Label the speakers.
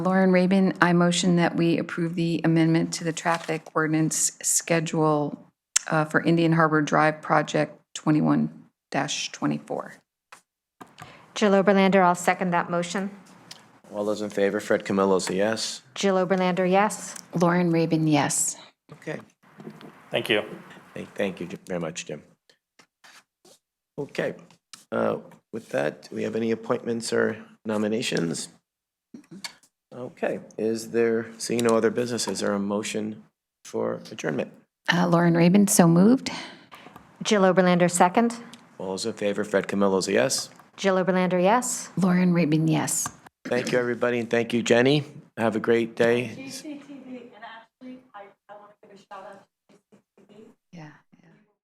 Speaker 1: Lauren Rabin, I motion that we approve the amendment to the traffic ordinance schedule uh, for Indian Harbor Drive Project 21-24.
Speaker 2: Jill Oberlander, I'll second that motion.
Speaker 3: All those in favor, Fred Camillo's a yes.
Speaker 2: Jill Oberlander, yes.
Speaker 1: Lauren Rabin, yes.
Speaker 3: Okay.
Speaker 4: Thank you.
Speaker 3: Thank, thank you very much, Jim. Okay, uh, with that, do we have any appointments or nominations? Okay, is there, seeing no other business, is there a motion for adjournment?
Speaker 1: Uh, Lauren Rabin, so moved.
Speaker 2: Jill Oberlander, second.
Speaker 3: All those in favor, Fred Camillo's a yes.
Speaker 2: Jill Oberlander, yes.
Speaker 1: Lauren Rabin, yes.
Speaker 3: Thank you, everybody, and thank you, Jenny. Have a great day.